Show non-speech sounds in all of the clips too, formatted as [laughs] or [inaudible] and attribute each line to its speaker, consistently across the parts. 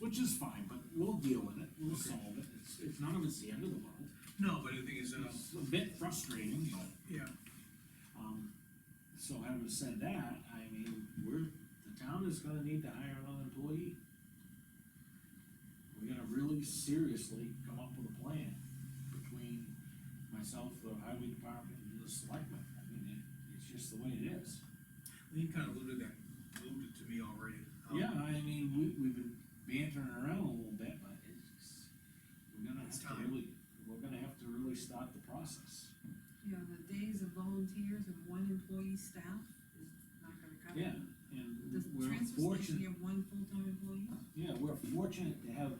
Speaker 1: which is fine, but we'll deal with it, we'll solve it, it's, it's none of it's the end of the world.
Speaker 2: No, but the thing is, um,
Speaker 1: It's a bit frustrating, but,
Speaker 2: yeah,
Speaker 1: um, so having said that, I mean, we're, the town is gonna need to hire another employee. We're gonna really seriously come up with a plan between myself, the highway department, and the selectmen, I mean, it, it's just the way it is.
Speaker 2: Lean kind of alluded that, alluded to me already. Um,
Speaker 1: Yeah, I mean, we, we've been bantering around a little bit, but it's, we're gonna have
Speaker 2: It's
Speaker 1: to
Speaker 2: time.
Speaker 1: really, we're gonna have to really start the process.
Speaker 3: You know, the days of volunteers and one employee staff is not gonna cut it.
Speaker 1: Yeah, and
Speaker 3: The
Speaker 1: we're
Speaker 3: transfer station,
Speaker 1: fortunate,
Speaker 3: you have one full-time employee,
Speaker 1: yeah, we're fortunate to have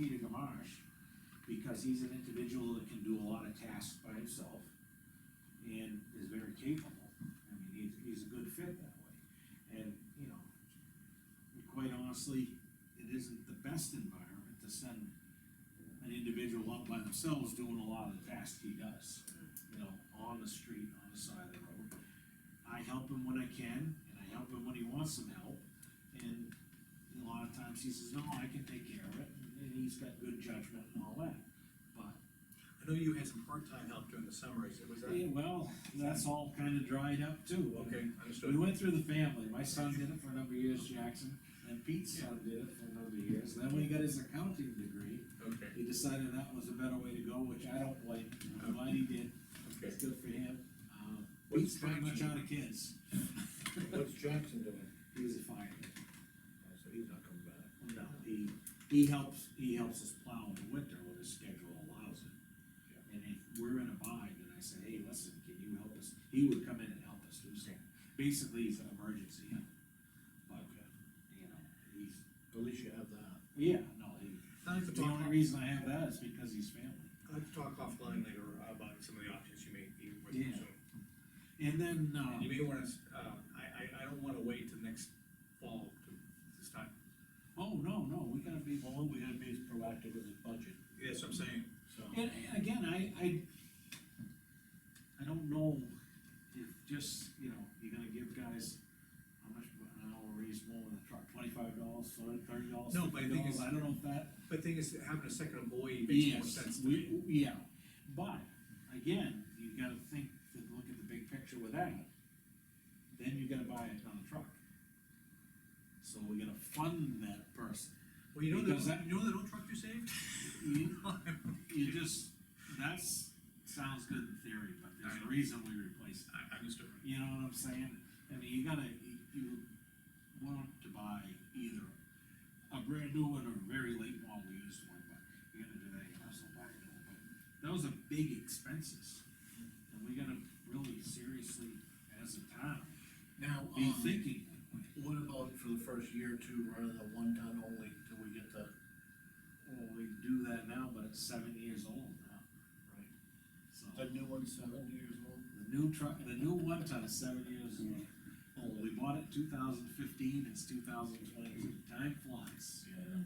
Speaker 1: Peter Gamache, because he's an individual that can do a lot of tasks by himself, and is very capable, I mean, he's, he's a good fit that way, and, you know, quite honestly, it isn't the best environment to send an individual up by themselves doing a lot of the tasks he does, you know, on the street, on the side of the road. I help him when I can, and I help him when he wants some help, and a lot of times he says, no, I can take care of it, and he's got good judgment and all that. But,
Speaker 2: I know you had some part-time help during the summer, is it, was that?
Speaker 1: yeah, well, that's all kinda dried up too.
Speaker 2: Okay,
Speaker 1: We
Speaker 2: understood.
Speaker 1: went through the family, my son did it for a number of years, Jackson, and Pete's son did it for a number of years, then when he got his accounting degree,
Speaker 2: Okay,
Speaker 1: he decided that was a better way to go, which I don't blame him, I'm glad he did,
Speaker 2: okay.
Speaker 1: it's good for him. Um,
Speaker 2: What's
Speaker 1: Pete's pretty much
Speaker 2: Jackson?
Speaker 1: out of kids,
Speaker 4: What's Jackson doing?
Speaker 1: he was a fireman.
Speaker 4: Oh, So he's not coming back.
Speaker 1: No, he, he helps, he helps us plow in the winter when his schedule allows it. And if we're in a bind and I say, hey, listen, can you help us? He would come in and help us do something. Basically, he's an emergency help. But, you know, he's,
Speaker 4: At least you have that.
Speaker 1: yeah, no, he,
Speaker 2: I'd like
Speaker 1: the
Speaker 2: to talk,
Speaker 1: only
Speaker 2: I'd
Speaker 1: reason I have that is because he's family.
Speaker 2: like to talk offline later about some of the options you may be with
Speaker 1: Yeah.
Speaker 2: soon.
Speaker 1: And then,
Speaker 2: And You
Speaker 1: uh,
Speaker 2: may wanna, s- uh, I, I, I don't wanna wait till next fall to, to start,
Speaker 1: oh, no, no, we gotta be,
Speaker 4: Well, we gotta be as proactive with his budget,
Speaker 2: Yeah, that's what I'm saying.
Speaker 4: so.
Speaker 1: And, and again, I, I, I don't know if just, you know, you're gonna give guys, how much, an hour raise more in the truck, twenty-five dollars, thirty dollars?
Speaker 2: No, but I think it's-
Speaker 1: I don't know if that.
Speaker 2: But thing is, having a second employee makes more
Speaker 1: Yes,
Speaker 2: sense to
Speaker 1: we,
Speaker 2: me.
Speaker 1: yeah, but, again, you gotta think, to look at the big picture with that, then you gotta buy another truck. So we gotta fund that person,
Speaker 2: Well, you know,
Speaker 1: Because
Speaker 2: the,
Speaker 1: that-
Speaker 2: you know that old truck you saved?
Speaker 1: you,
Speaker 4: Mm-hmm.
Speaker 2: [laughs]
Speaker 1: you just, that's, sounds good in theory, but there's a reason we replace it.
Speaker 2: I, I understood.
Speaker 1: You know what I'm saying? I mean, you gotta, you- you want to buy either a brand new one or a very late model used one, but you gotta do that, you also buy a new one. But Those are big expenses, and we gotta really seriously, as a town,
Speaker 4: Now,
Speaker 1: be
Speaker 4: um,
Speaker 1: thinking that way.
Speaker 4: what about for the first year or two, running the one ton only till we get the,
Speaker 1: Well, we do that now, but it's seven years old now,
Speaker 4: right?
Speaker 1: so.
Speaker 4: The new one's seven years old?
Speaker 1: The new truck, the new one ton is seven years old. Oh, we bought it two thousand fifteen, it's two thousand twenty-two, time flies.
Speaker 4: Yeah.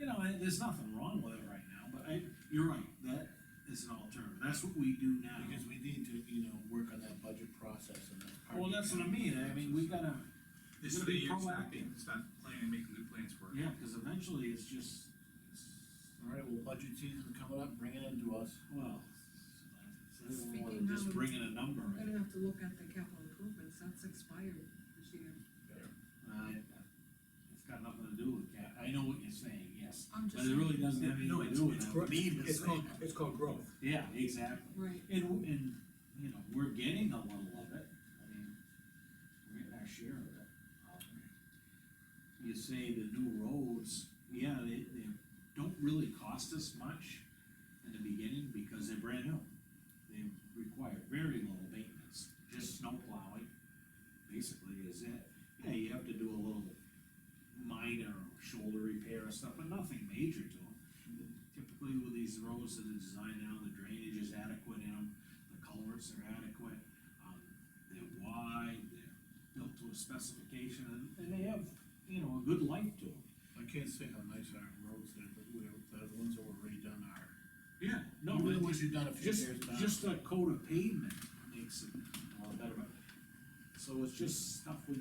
Speaker 1: You know, and there's nothing wrong with it right now, but I, you're right, that is an alternative, that's what we do now.
Speaker 4: Because we need to, you know, work on that budget process and that's part.
Speaker 1: Well,
Speaker 4: of the
Speaker 1: that's what I mean, I mean, we gotta,
Speaker 2: This
Speaker 1: You're
Speaker 2: is
Speaker 1: gonna
Speaker 2: the
Speaker 1: be
Speaker 2: year to start
Speaker 1: proactive.
Speaker 2: being, start planning, making good plans for it.
Speaker 1: yeah, because eventually it's just, it's,
Speaker 4: All right, well, budget season coming up, bring it into us.
Speaker 1: well, it's more than
Speaker 3: Speaking
Speaker 1: just
Speaker 3: of-
Speaker 1: bringing a number
Speaker 3: I'm
Speaker 1: in.
Speaker 3: gonna have to look at the capital improvements, that's expired this year.
Speaker 1: I- Uh, It's got nothing to do with that, I know what you're saying, yes,
Speaker 3: I'm
Speaker 1: but
Speaker 3: just,
Speaker 1: it really doesn't have
Speaker 2: No,
Speaker 1: anything to
Speaker 2: it's,
Speaker 1: do with
Speaker 2: it's
Speaker 1: that.
Speaker 2: growth,
Speaker 1: Need to
Speaker 2: it's
Speaker 1: say
Speaker 2: called,
Speaker 1: that.
Speaker 2: it's called growth.
Speaker 1: Yeah, exactly.
Speaker 3: right,
Speaker 1: And, and, you know, we're getting a little of it, I mean, we're getting our share of it. Um, You say the new roads, yeah, they, they don't really cost us much in the beginning because they're brand new. They require very little maintenance, just snow plowing, basically is it. Yeah, you have to do a little minor shoulder repair or stuff, but nothing major to them. Typically with these roads that are designed now, the drainage is adequate in them, the culverts are adequate, um, they're wide, they're built to a specification, and, and they have, you know, a good life to them.
Speaker 4: I can't say how nice our roads are, but we're, the ones that were redone are.
Speaker 1: Yeah, no,
Speaker 4: Even
Speaker 1: but
Speaker 4: the ones you've done a few
Speaker 1: just,
Speaker 4: years back.
Speaker 1: just a coat of pavement makes it a lot better. So it's just stuff we